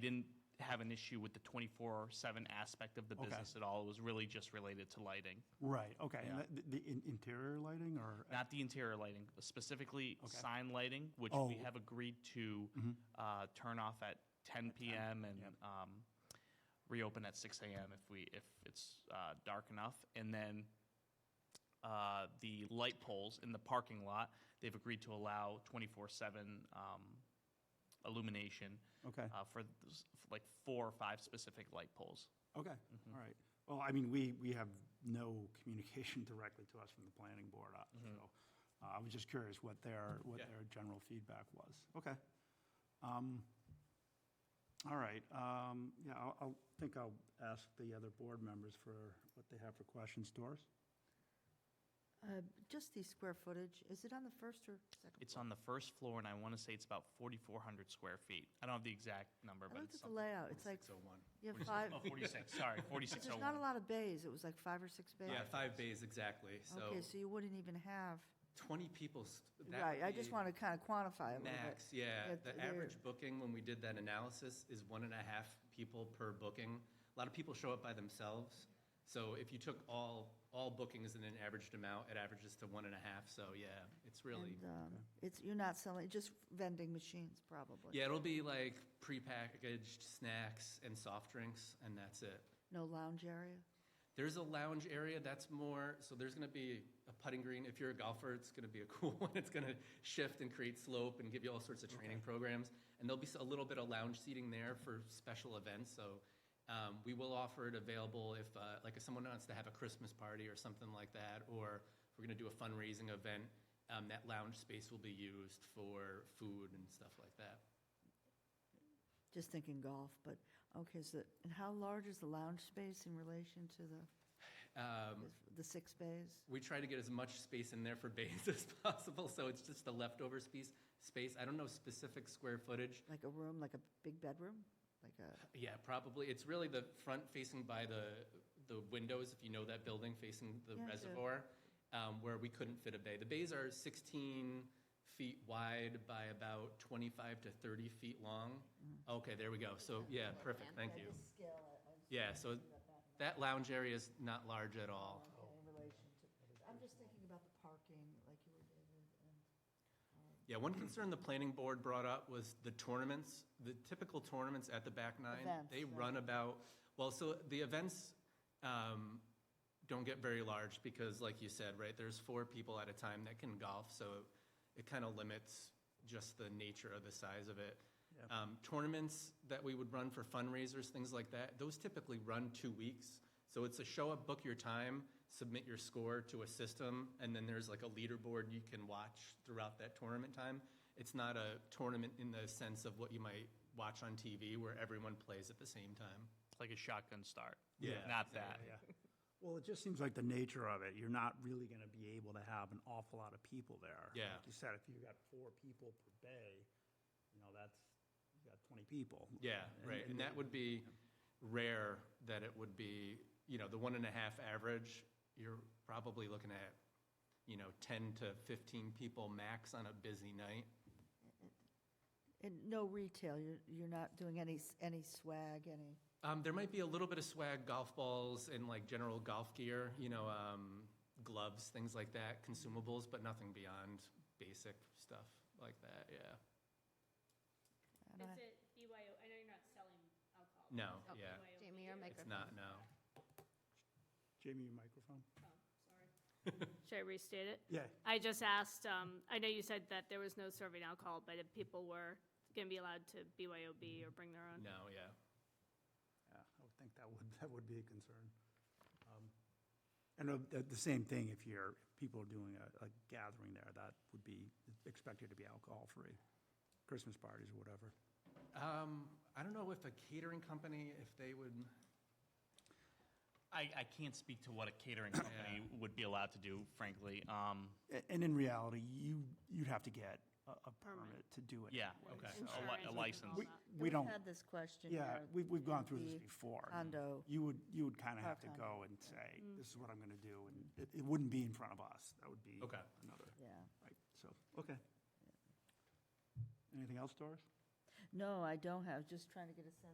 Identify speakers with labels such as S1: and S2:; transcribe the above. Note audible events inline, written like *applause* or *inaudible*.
S1: didn't have an issue with the 24/7 aspect of the
S2: Okay.
S1: business at all. It was really just related to lighting,
S2: Right, okay.
S1: Yeah.
S2: And the, the in- interior lighting or?
S1: not the interior lighting, specifically sign lighting, which
S2: Oh. Mm-hmm.
S1: we have agreed to uh, turn off at 10 PM and um, reopen at 6 AM if we, if it's uh, dark enough. And then uh, the light poles in the parking lot, they've agreed to allow 24/7 um, illumination.
S2: Okay.
S1: uh, For those- like four or five specific light poles.
S2: Okay,
S1: Mm-hmm.
S2: all right. Well, I mean, we, we have no communication *laughs* directly to us from the planning board, uh, so uh, I was just curious what their,
S1: Mm-hmm.
S2: what
S1: Yeah.
S2: their general feedback was. Okay. Um, All right, um, yeah, I'll, I'll think I'll ask the other board members for what they have for questions. Doris?
S3: Uh, Just the square footage, is it on the first or second?
S1: It's on the first floor, and I want to say it's about 4,400 square feet. I don't have the exact number,
S3: I
S1: but
S3: looked
S1: it's
S3: at the
S1: something.
S3: layout, it's like,
S4: 601.
S3: you have
S4: *laughs*
S3: five,
S1: Oh, 46, sorry,
S3: *laughs* there's not a
S1: 4601.
S3: lot of bays, it was like five or six bays?
S4: Yeah, five bays exactly. So
S3: Okay, so you wouldn't even have,
S4: 20 people. st- that
S3: right, I
S4: would
S3: just
S4: be
S3: want to kind of quantify it a little bit.
S4: Max, yeah.
S3: At
S4: The
S3: the-
S4: average booking, when we did that analysis, is one and a half people per booking. A lot of people show up by themselves. So if you took all, all bookings and then averaged them out, it averages to one and a half. So yeah, it's really,
S3: And, um, It's, you're not selling, just vending machines, probably?
S4: yeah, it'll be like prepackaged snacks and soft drinks, and that's it.
S3: No lounge area?
S4: There's a lounge area that's more, so there's going to be a putting green. If you're a golfer, it's going to be a *laughs* cool one. It's going to shift and create slope and give you all sorts of training programs. And there'll be a little bit of lounge seating there for special events. So um, we will offer it available if, uh, like, if someone wants to have a Christmas party or something like that, or if we're going to do a fundraising event, um, that lounge space will be used for food and stuff like that.
S3: Just thinking golf, but, okay, so, and how large is the lounge space in relation to the,
S4: Um,
S3: the six bays?
S4: We try to get as much space in there for bays *laughs* as possible, so it's just the leftover space, space. I don't know specific square footage.
S3: Like a room, like a big bedroom? Like a,
S4: Yeah, probably. It's really the front facing by the, the windows, if you know that building facing the
S3: Yeah, I do.
S4: reservoir, um, where we couldn't fit a bay. The bays are sixteen feet wide by about twenty-five to thirty feet long.
S3: Mm.
S4: Okay, there we go. So, yeah, perfect. Thank you. Yeah, so that lounge area is not large at all.
S3: In relation to, I'm just thinking about the parking, like you were, David, and.
S4: Yeah, one concern the planning board brought up was the tournaments. The typical tournaments at the back nine,
S3: Events,
S4: they
S3: right.
S4: run about, well, so the events um, don't get very large because like you said, right, there's four people at a time that can golf, so it kind of limits just the nature of the size of it. Um, Tournaments that we would run for fundraisers, things like that, those typically run two weeks. So it's a show up, book your time, submit your score to a system, and then there's like a leaderboard you can watch throughout that tournament time. It's not a tournament in the sense of what you might watch on TV where everyone plays at the same time.
S1: Like a shotgun start.
S4: Yeah.
S1: Not that.
S2: *laughs* Well, it just seems like the nature of it, you're not really going to be able to have an awful lot of people there.
S4: Yeah.
S2: Like you said, if you got four people per bay, you know, that's, you got 20 people.
S4: Yeah, right, and that would be rare that it would be, you know, the one and a half average, you're probably looking at, you know, ten to fifteen people max on a busy night.
S3: And no retail, you're, you're not doing any, s- any swag, any,
S4: Um, there might be a little bit of swag, golf balls and like general golf gear, you know, um, gloves, things like that, consumables, but nothing beyond basic stuff like that, yeah.
S3: I don't
S5: Is
S3: know.
S5: it BYO, I know you're not selling alcohol. but
S4: No,
S5: is it
S4: yeah.
S5: BYOB
S6: Jamie, your
S5: or-
S4: It's not, no.
S2: Jamie, your microphone?
S5: oh, sorry.
S4: *laughs*
S5: Should I restate it?
S2: Yeah.
S5: I just asked, um, I know you said that there was no serving alcohol, but if people were gonna be allowed to BYOB or bring their own?
S4: No, yeah.
S2: Yeah, I would think that would, that would be a concern. Um, And uh, the, the same thing, if you're, if people are doing a, a gathering there, that would be expected to be alcohol-free, Christmas parties or whatever.
S4: Um, I don't know if a catering company, if they would,
S1: I, I can't speak to what a catering company would be allowed to do, frankly. Um,
S2: A- And in reality, you, you'd have to get a, a permit to do it.
S1: Yeah,
S2: anyway,
S1: okay. A
S2: so-
S5: Insurance
S1: li- A
S5: and
S1: license.
S5: all
S2: We,
S5: that.
S2: we don't.
S3: We've had this question.
S2: Yeah,
S3: here.
S2: we've, we've gone through
S3: The
S2: this before.
S3: condo.
S2: You would, you would kind of have to go
S3: condo.
S2: and say,
S5: Mm.
S2: this is what I'm going to do, and it, it wouldn't be in front of us. That would be
S4: Okay.
S2: another,
S3: Yeah.
S2: right, so, okay. Anything else, Doris?
S3: No, I don't have, just trying to get a sense